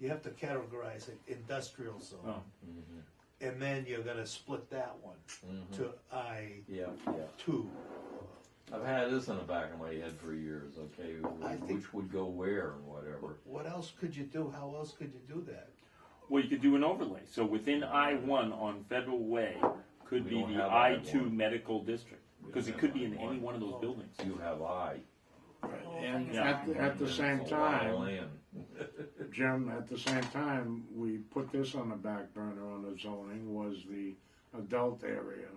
you have to categorize it industrial zone. Oh. mm-hmm. And then you're gonna split that one to I Yeah, yeah. two. I've had this in the back of my head for years, okay, I think- which would go where and whatever. What else could you do? How else could you do that? Well, you could do an overlay, so within I one on Federal Way could We be don't the have I two I-1. medical district, because it could be in any one of those buildings. You have I. And Yeah. at, at the It's same a lot of time, land. Jim, at the same time, we put this on the back burner on the zoning was the adult area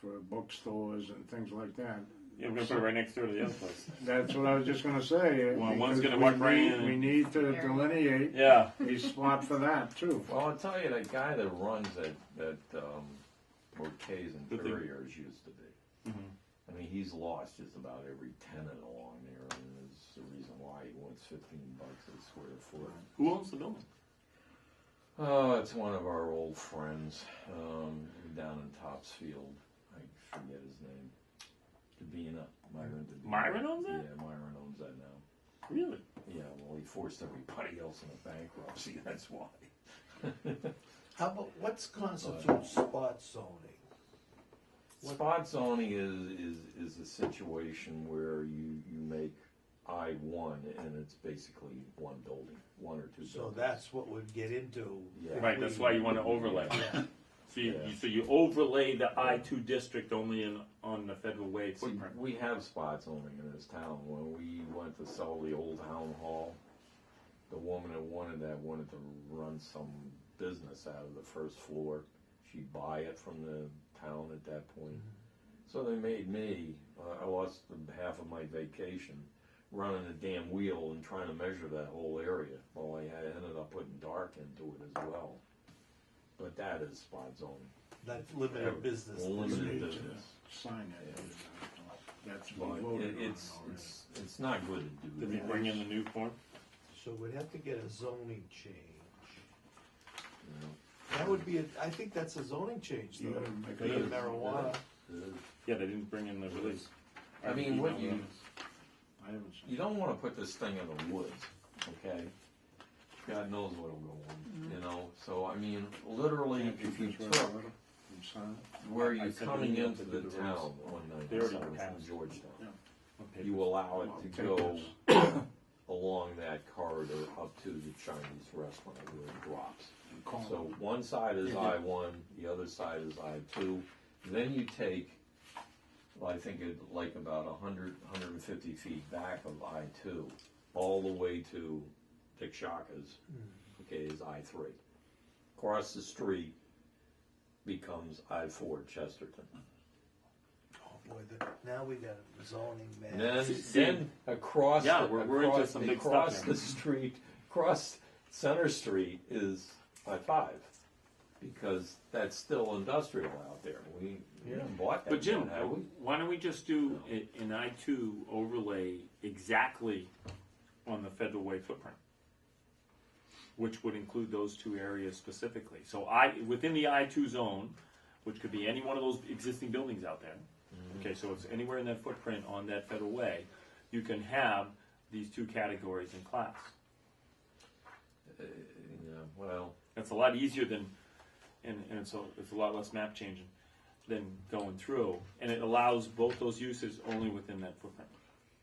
for bookstores and things like that. Yeah, we're gonna put it right next door to the other place. That's what I was just gonna say. Well, one's because gonna we walk right need- in and- We need to delineate Yeah, a spot for that too. Well, I'll tell you, that guy that runs that, that, um, Bouquet's Good thing. Interiors used to be. I mean, he's lost just about every tenant along there, and there's a reason why he wants fifteen bucks a square foot. who owns the building? Oh, it's one of our old friends, um, down in Topsfield, I forget his name. Davina, Myron Davina. Myron owns it? Yeah, Myron owns that now. Really? Yeah, well, he forced everybody else into bankruptcy, that's why. How about, what's constitutes spot zoning? What- Spot zoning is, is, is a situation where you, you make I one and it's basically one building, one or two So buildings. that's what we'd get into. Yeah. Right, that's why you wanna overlay. So you, Yeah. you- so you overlay the I two district only in, on the Federal Way We, footprint. we have spot zoning in this town. When we went to sell the old town hall, the woman that wanted that wanted to run some business out of the first floor. She'd buy it from the town at that point. So they made me, uh, I lost the half of my vacation running a damn wheel and trying to measure that whole area. Well, I had- ended up putting dark into it as well. But that is spot zoning. That limited business. Limited Yeah. business. Sign it. That's what But we voted it- on it's, already. it's, it's not good to do Did we that. bring in the new form? So we'd have to get a zoning change. you know. That would be, a I think that's a zoning change though, Yeah, It could be it is. marijuana. Yeah, they didn't bring in the release. I mean, what you, I haven't seen. you don't wanna put this thing in the woods, okay? God knows what'll go on, you know, so I mean, literally, if you took And sign it. where I you're sent an coming email into to the the town roads. on They already ninety-seven passed. from Georgetown, Okay. you allow I'll it to take go this. along that corridor up to the Chinese restaurant where it drops. Call it. So one side is I one, the other side is I two. Then you take, well, I think it like about a hundred, hundred and fifty feet back of I two, all the way to Dick Shaka's, okay, is I three. Across the street becomes I four Chesterton. Oh boy, the, now we got a zoning And man. then, See- see- then across, Yeah, the- we're- we're into across- some big stuff across here. the street, across Center Street is I five, because that's still industrial out there. We, we haven't bought that. But Jim, yet, have we? why don't we just do a- an I two overlay exactly on the Federal Way footprint? Which would include those two areas specifically. So I, within the I two zone, which could be any one of those existing buildings out there. Okay, so it's anywhere in that footprint on that Federal Way, you can have these two categories in class. Yeah, uh, well, That's a lot easier than, and, and it's a, it's a lot less map changing than going through, and it allows both those uses only within that footprint.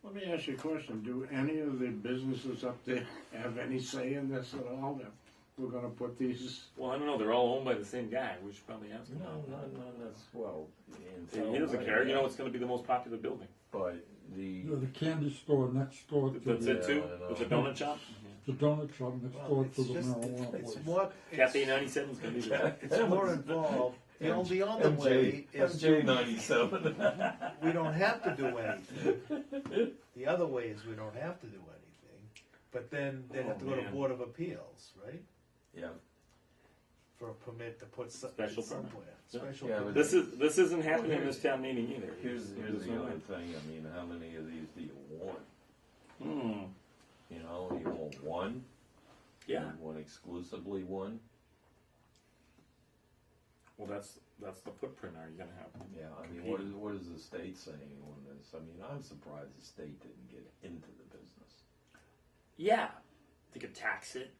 Let me ask you a question. Do any of the businesses up there have any say in this at all? That we're gonna put these, Well, I don't know, they're all owned by the same guy, we should probably ask him. no, no, no, that's, well. in He doesn't Federal care, Way, you know, it's gonna be the most popular building. But the, You know, the candy store next door to That's the, uh, it too, Yeah, I with the know. donut shop? the donut shop next Well, door it's to the just- marijuana It's place. more, Cafe it's, ninety-seven's gonna be the, it's more involved. The only, the other way MJ, is MJ ninety-seven. we don't have to do anything. The other way is we don't have to do anything, but then they have to go to Oh, man. Board of Appeals, right? Yeah, For a permit to put something Special permit. somewhere. Special Yeah, permit. but- this is, this isn't happening in this town meeting either. here's, here's There's the no other way. thing, I mean, how many of these do you want? Hmm, You know, you want one? yeah, You want exclusively one? well, that's, that's the footprint, are you gonna have? Yeah, I mean, what is, what is the state saying on this? I mean, I'm surprised the state didn't get into the business. Yeah, they could tax it,